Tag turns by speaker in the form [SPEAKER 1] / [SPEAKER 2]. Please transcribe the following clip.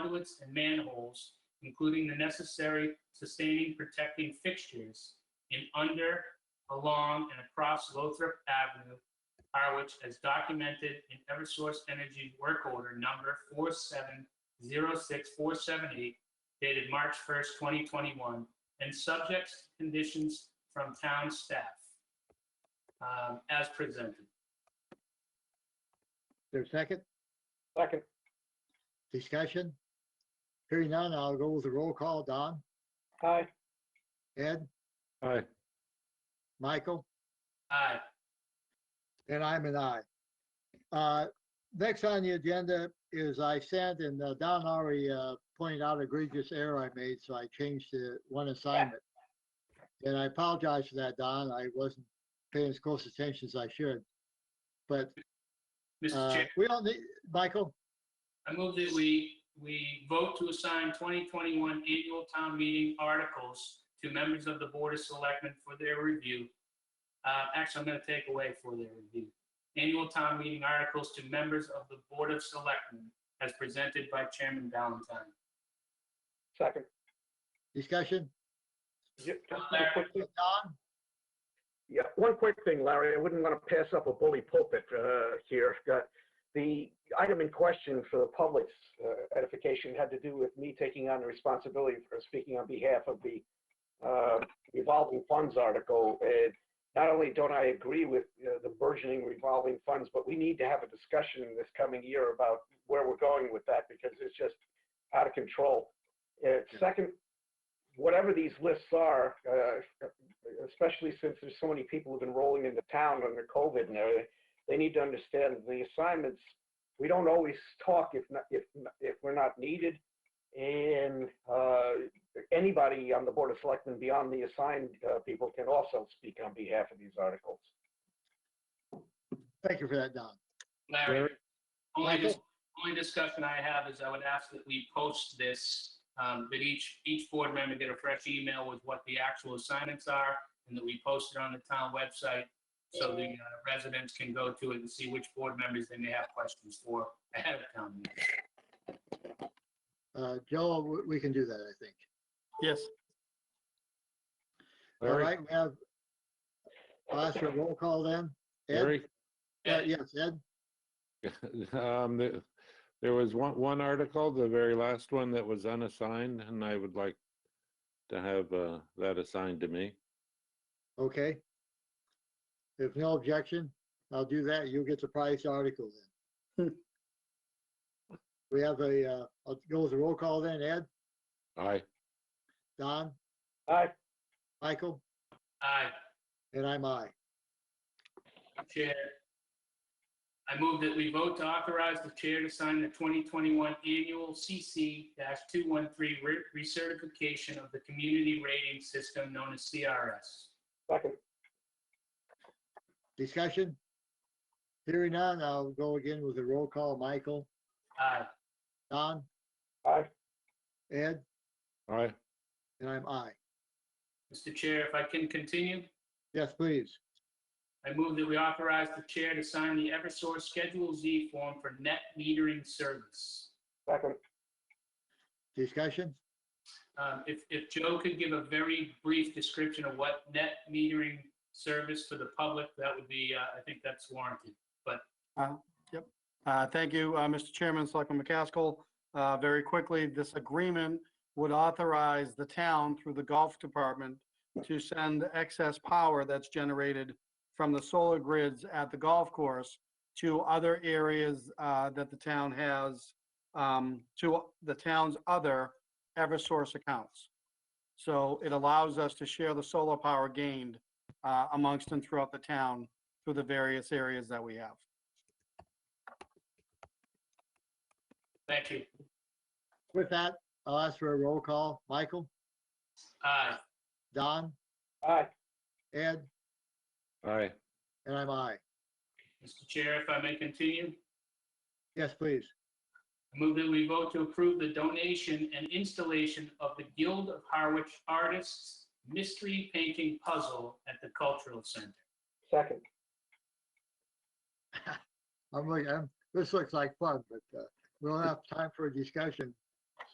[SPEAKER 1] conduits and manholes, including the necessary sustaining protecting fixtures in under, along, and across Lothrop Avenue, Harwich, as documented in Eversource Energy Work Order Number 4706478, dated March 1st, 2021, and subject to conditions from town staff, um, as presented.
[SPEAKER 2] there a second?
[SPEAKER 3] Second.
[SPEAKER 2] Discussion? Hearing none, I'll go with the roll call. Don,
[SPEAKER 3] Aye.
[SPEAKER 2] Ed,
[SPEAKER 3] Aye.
[SPEAKER 2] Michael,
[SPEAKER 1] Aye.
[SPEAKER 2] and I'm an aye. Uh, Next on the agenda is I sent, and uh, Don already uh, pointed out egregious error I made, so I changed the one assignment. And I apologize for that, Don. I wasn't paying as close attention as I should. But
[SPEAKER 1] Mr.
[SPEAKER 2] uh,
[SPEAKER 1] Chair,
[SPEAKER 2] we all need, Michael,
[SPEAKER 1] I move that we, we vote to assign 2021 annual town meeting articles to members of the Board of Selectmen for their review. Uh, Actually, I'm going to take away for their review. Annual town meeting articles to members of the Board of Selectmen as presented by Chairman Valentine.
[SPEAKER 3] Second.
[SPEAKER 2] discussion?
[SPEAKER 3] Yeah, just one quick thing.
[SPEAKER 2] Don,
[SPEAKER 3] Yeah, one quick thing, Larry, I wouldn't want to pass up a bully pulpit uh, here. Uh, The item in question for the public's uh, edification had to do with me taking on the responsibility for speaking on behalf of the uh, revolving funds article. And Not only don't I agree with uh, the burgeoning revolving funds, but we need to have a discussion in this coming year about where we're going with that because it's just out of control. Uh, Second, whatever these lists are, uh, especially since there's so many people who've been rolling into town under COVID and everything, they need to understand the assignments. We don't always talk if not, if if we're not needed, and uh, anybody on the board of selectmen beyond the assigned uh, people can also speak on behalf of these articles.
[SPEAKER 2] thank you for that, Don.
[SPEAKER 1] Larry, only, dis-
[SPEAKER 2] Michael?
[SPEAKER 1] only discussion I have is I would ask that we post this, um, that each, each board member get a fresh email with what the actual assignments are, and that we post it on the town website so the uh, residents can go to it and see which board members they may have questions for ahead of town meeting.
[SPEAKER 2] Uh, Joe, we- we can do that, I think.
[SPEAKER 4] Yes.
[SPEAKER 2] All
[SPEAKER 4] Larry,
[SPEAKER 2] right, we have, I'll ask for a roll call then. Ed?
[SPEAKER 4] Larry,
[SPEAKER 2] Uh,
[SPEAKER 1] Ed?
[SPEAKER 2] Yes, Ed,
[SPEAKER 4] um, the- there was one, one article, the very last one that was unassigned, and I would like to have, uh, that assigned to me.
[SPEAKER 2] okay. If no objection, I'll do that. You'll get the price article then. We have a, uh, I'll go with the roll call then. Ed,
[SPEAKER 4] Aye.
[SPEAKER 2] Don,
[SPEAKER 3] Aye.
[SPEAKER 2] Michael,
[SPEAKER 1] Aye.
[SPEAKER 2] and I'm I.
[SPEAKER 1] Chair. I move that we vote to authorize the chair to sign the 2021 annual CC-213 re- recertification of the community rating system known as CRS.
[SPEAKER 3] Second.
[SPEAKER 2] Discussion? Hearing none, I'll go again with the roll call. Michael,
[SPEAKER 1] Aye.
[SPEAKER 2] Don,
[SPEAKER 3] Aye.
[SPEAKER 2] Ed,
[SPEAKER 4] Aye.
[SPEAKER 2] and I'm I.
[SPEAKER 1] Mr. Chair, if I can continue,
[SPEAKER 2] Yes, please.
[SPEAKER 1] I move that we authorize the chair to sign the Eversource Schedule Z form for net metering service.
[SPEAKER 3] Second.
[SPEAKER 2] Discussion?
[SPEAKER 1] Um, If, if Joe could give a very brief description of what net metering service for the public, that would be, uh, I think that's warranted.
[SPEAKER 5] Uh, Thank you, uh, Mr. Chairman, Selectman McCaskill. Uh, Very quickly, this agreement would authorize the town through the Gulf Department to send excess power that's generated from the solar grids at the golf course to other areas uh, that the town has, um, to the town's other ever-source accounts. So it allows us to share the solar power gained uh, amongst and throughout the town through the various areas that we have.
[SPEAKER 1] Thank you.
[SPEAKER 2] With that, I'll ask for a roll call. Michael,
[SPEAKER 1] Aye.
[SPEAKER 2] Don,
[SPEAKER 3] Aye.
[SPEAKER 2] Ed,
[SPEAKER 4] Aye.
[SPEAKER 2] and I'm I.
[SPEAKER 1] Mr. Chair, if I may continue,
[SPEAKER 2] Yes, please.
[SPEAKER 1] I move that we vote to approve the donation and installation of the Guild of Harwich Artists Mystery Painting Puzzle at the Cultural Center.
[SPEAKER 3] Second.
[SPEAKER 2] I'm like, I'm, this looks like fun, but uh, we don't have time for a discussion.